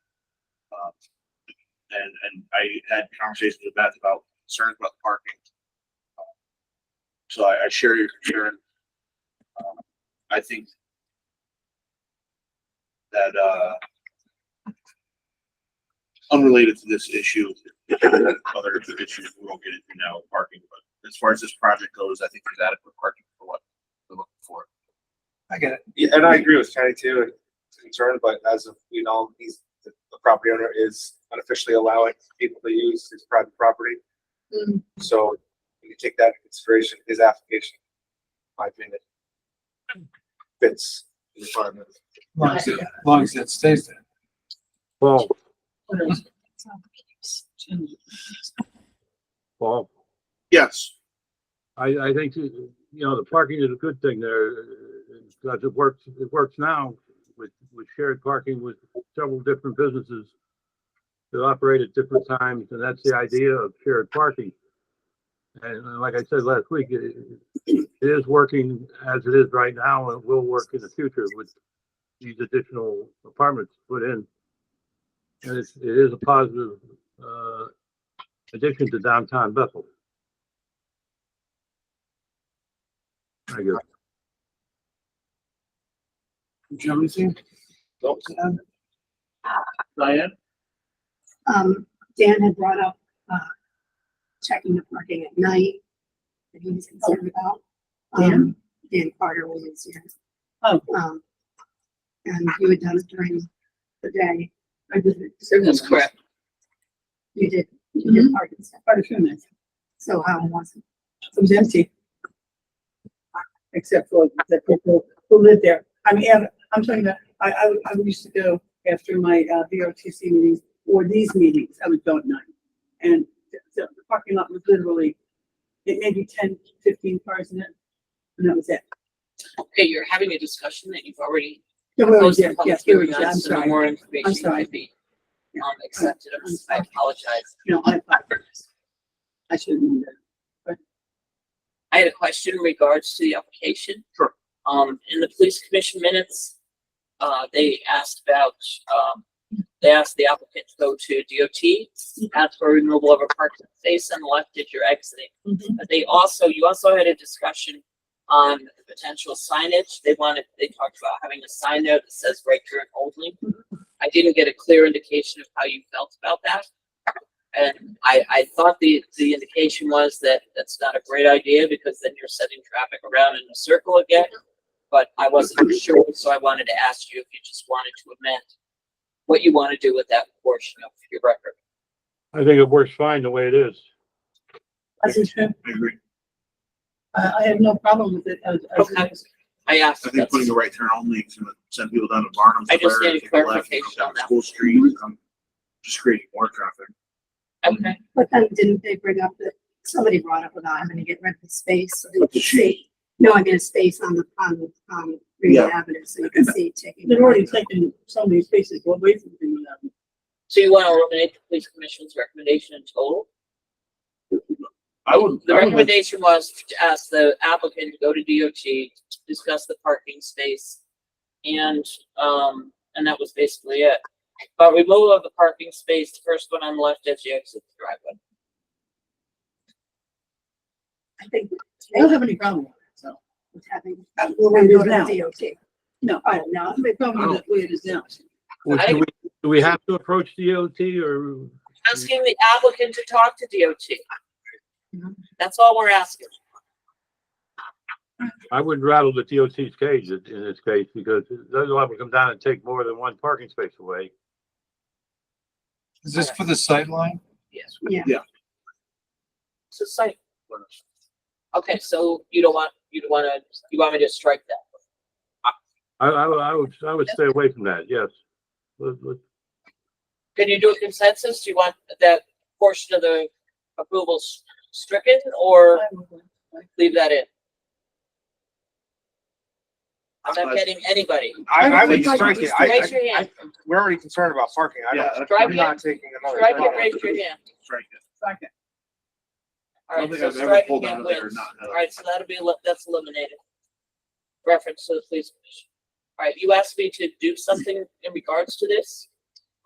and, and I had conversations with Beth about concerns about the parking. So I, I share your concern. Um, I think that, uh, unrelated to this issue, other issues we won't get into now, with parking, but as far as this project goes, I think there's adequate parking for what we're looking for. I get it. Yeah, and I agree with Kenny too, and concerned, but as of, you know, he's, the the property owner is unofficially allowing people to use his private property. Mm. So when you take that into consideration, his application, in my opinion, fits the requirement. Long as it, long as it stays there. Well, well, Yes, I, I think, you know, the parking is a good thing there. Because it works, it works now with, with shared parking with several different businesses that operate at different times, and that's the idea of shared parking. And uh, like I said last week, it, it is working as it is right now, and it will work in the future with these additional apartments put in. And it's, it is a positive, uh, addition to downtown Bethel. I guess. Do you have anything? Diane? Um, Dan had brought up, uh, checking the parking at night that he was concerned about. Um, Dan Carter was, yes. Oh. Um, and you had done it during the day. or the- That's correct. Mm-hmm. You did, you did park and stuff. Quite a few minutes. So um, how was it? It was empty. Except for the people who lived there. I mean, and I'm talking about, I, I, would- I would used to go after my, uh, VRTC meetings or these meetings, I would go at night. And the, the parking lot was literally, it maybe 10, 15 cars in it. And that was it. Okay, you're having a discussion that you've already There were- closed yeah, the yeah, public there were- hearing yeah, on, I'm so no sorry. more information sorry. could be um, accepted. I'm I sorry. apologize. You know, I, I shouldn't. I had a question in regards to the application. Sure. Um, in the police commission minutes, uh, they asked about, um, they asked the applicant to go to Mm-hmm. DOT, ask for removal of a parking space on the left if you're exiting. Mhm. But they also, you also had a discussion on the potential signage. They wanted, they talked about having a sign there that says right turn only. I didn't get a clear indication of how you felt about that. And I, I thought the, the indication was that that's not a great idea because then you're sending traffic around in a circle again. But I wasn't sure, so I wanted to ask you if you just wanted to amend what you want to do with that portion of your record. I think it works fine the way it is. I said, sure. I agree. Uh, I, I have no problem with it as, as. it Okay. is. I asked. I think putting the right turn only is gonna send people down to Barnum. I just Square, need take a left, clarification come down on that. Mm-hmm. School Street, um, just creating more traffic. Okay, But then didn't they bring up that, somebody brought up about having to get rid of the space so that you Up the could see? No, I mean a space on the, on the, on Green Yeah. Avenue so you can see taking. They've already taken so many spaces away from people now. so you want to eliminate the police commission's recommendation in total? Oh, I would. The recommendation was to ask the applicant to go to DOT, discuss the parking space. And, um, and that was basically it. But removal of the parking space, the first one on the left as you exit the driveway. I think I don't have any problem with it, so. with having. That's the way it is now. DOT. No, I don't know. The problem is the way it is now. Well, I- Do we, do we have to approach DOT or? Asking the applicant to talk to DOT. Mhm. That's all we're asking. I would rattle the DOT's cage in in this case because they'll have to come down and take more than one parking space away. Is this for the sight line? Yes. Yeah. Yeah. So site. Okay, so you don't want, you don't want to, you want me to strike that? I, I, would- I would, I would stay away from that, yes. Let- let- Can you do a consensus? Do you want that portion of the approval s- stricken or leave that in? I'm not getting anybody. I, I would would like strike to it. I, Raise your I- hand. we're already concerned about parking. I Yeah. don't, Strike I'm it, not taking another. strike turn. it, raise your hand. Strike it. Second. All I don't right, think so I've ever strike pulled again out of there wins. not knowing. All right, so that'll be, eli- that's eliminated. Reference to the police commission. All right, you asked me to do something in regards to this?